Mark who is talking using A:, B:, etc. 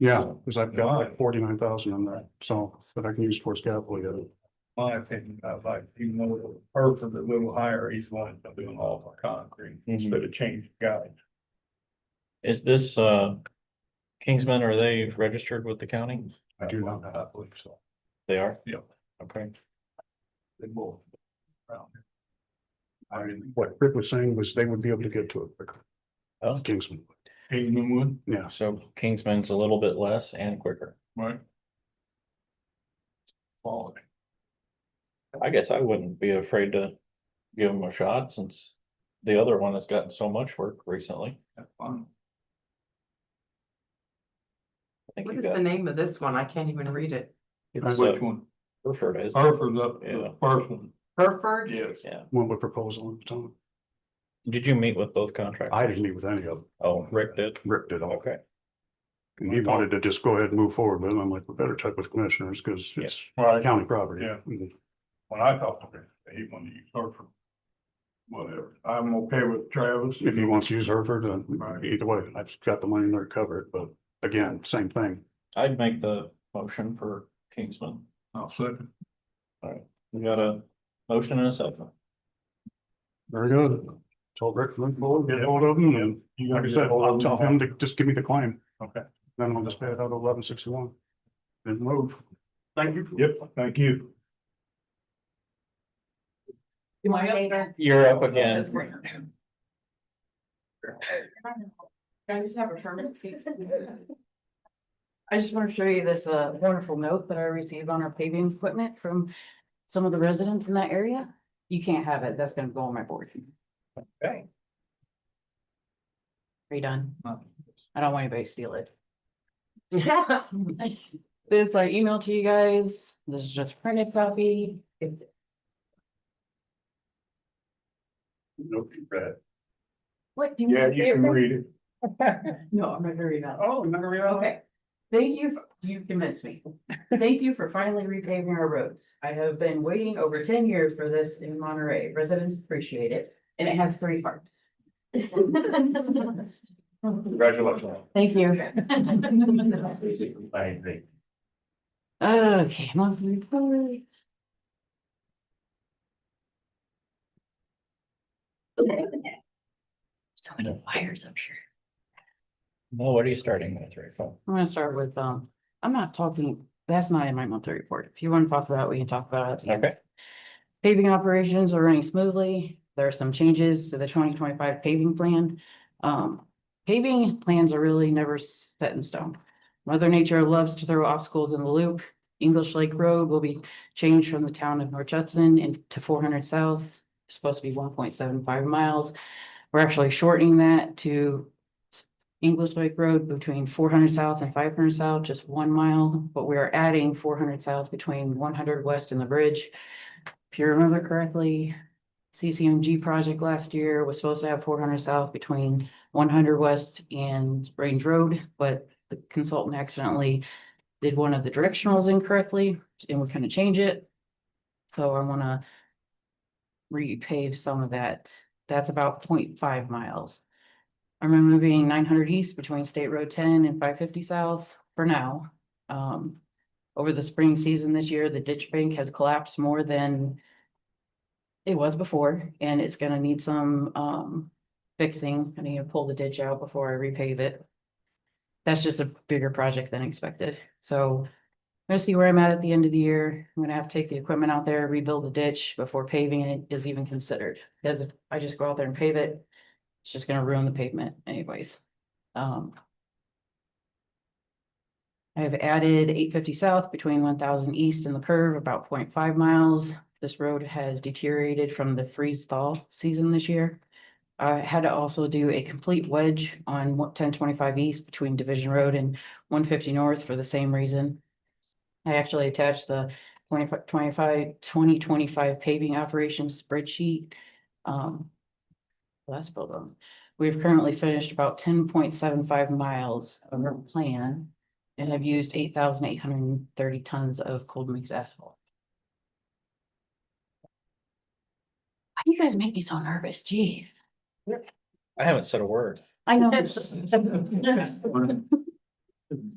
A: Yeah, because I've got like forty-nine thousand in there, so that I can use towards capital yet.
B: My opinion, I like, even though the earth is a little higher, he's wanting to do an all concrete instead of change guys.
C: Is this, uh, Kingsman, are they registered with the county?
A: I do not.
B: I believe so.
C: They are?
B: Yep.
C: Okay,
B: They both. around here. I mean,
A: What Rick was saying was they would be able to get to it quicker.
C: Oh.
A: Kingsman,
B: Kingmanwood,
A: yeah,
C: so Kingsman's a little bit less and quicker.
B: right? Quality.
C: I guess I wouldn't be afraid to give them a shot since the other one has gotten so much work recently.
B: That's fine.
C: I think
D: What
C: you
D: is the
C: got,
D: name of this one? I can't even read it.
C: it's
B: Which
C: uh,
B: one?
C: Burford, isn't it?
B: Hereford's up, to
C: Yeah.
B: the first one,
D: Hereford?
B: yes.
A: one with proposal at the time.
C: Did you meet with both contractors?
A: I didn't meet with any of them,
C: Oh, Rick did?
A: Rick did all.
C: Okay,
A: And He wanted to just go ahead and move forward with it. I'm like, we better check with commissioners because it's
B: Right,
A: county property.
B: Yeah. when I talked to him, he wanted to use Hereford. Whatever, I'm okay with Travis.
A: If he wants to use Hereford, uh,
B: Right.
A: either way, I've got the money in there to cover it, but again, same thing.
C: I'd make the motion for Kingsman.
B: I'll second.
C: We got a motion and a second.
A: Very good. Tell Rick, move forward, get hold of him and
B: You
A: like I
B: gotta
A: said,
B: get all
A: I'll
B: of
A: tell
B: them.
A: him to just give me the claim.
B: Okay.
A: Then I'll just pay it out eleven sixty-one. And move. Thank you.
B: Yep, thank you.
D: Am I up?
C: You're up again.
E: Can I just have a permanent seat? I just want to show you this uh wonderful note that I received on our paving equipment from some of the residents in that area. You can't have it. That's gonna go on my board.
C: Okay.
E: Redone. I don't want anybody to steal it. It's like email to you guys. This is just printed copy. If
B: Nope, you read it.
E: What do you?
B: Yeah,
E: want to say
B: you can
E: it?
B: read it.
E: No, I'm not very about.
B: Oh, never read
E: Okay, thank you, f- you convinced me. Thank you for finally repaving our roads. I have been waiting over ten years for this in Monterey. Residents appreciate it, and it has three parts.
C: Congratulations.
E: Thank you.
C: I agree.
E: Okay, monthly reports. So many wires, I'm sure.
C: Well, what are you starting with, Rachel?
E: I'm gonna start with, um, I'm not talking, that's not in my monthly report. If you want to talk about it, we can talk about it.
C: Okay.
E: Paving operations are running smoothly. There are some changes to the twenty twenty-five paving plan. Um, paving plans are really never set in stone. Mother Nature loves to throw obstacles in the loop. English Lake Road will be changed from the town of North Judson and to four hundred south. It's Supposed to be one point seven five miles. We're actually shortening that to English Lake Road between four hundred south and five hundred south, just one mile, but we are adding four hundred south between one hundred west and the bridge if you remember correctly, CCMG project last year was supposed to have four hundred south between one hundred west and Range Road, but the consultant accidentally did one of the directionals incorrectly, and we're gonna change it. So I wanna repave some of that. That's about 0.5 miles. I'm removing nine hundred east between State Road ten and five fifty south for now. Um, over the spring season this year, the ditch bank has collapsed more than it was before, and it's gonna need some, um, fixing. I need to pull the ditch out before I repave it. That's just a bigger project than expected, so I'm gonna see where I'm at at the end of the year. I'm gonna have to take the equipment out there, rebuild the ditch before paving it is even considered. Because if I just go out there and pave it, it's just gonna ruin the pavement anyways. Um, I've added eight fifty south between one thousand east and the curve, about 0.5 miles. This road has deteriorated from the freeze thaw season this year. I had to also do a complete wedge on ten twenty-five east between Division Road and one fifty north for the same reason. I actually attached the 25 25 2025 paving operations spreadsheet. Um. Last build on, we've currently finished about ten point seven five miles of our plan. And have used eight thousand eight hundred and thirty tons of cold mix asphalt. Why do you guys make me so nervous? Jeez.
C: I haven't said a word.
E: I know.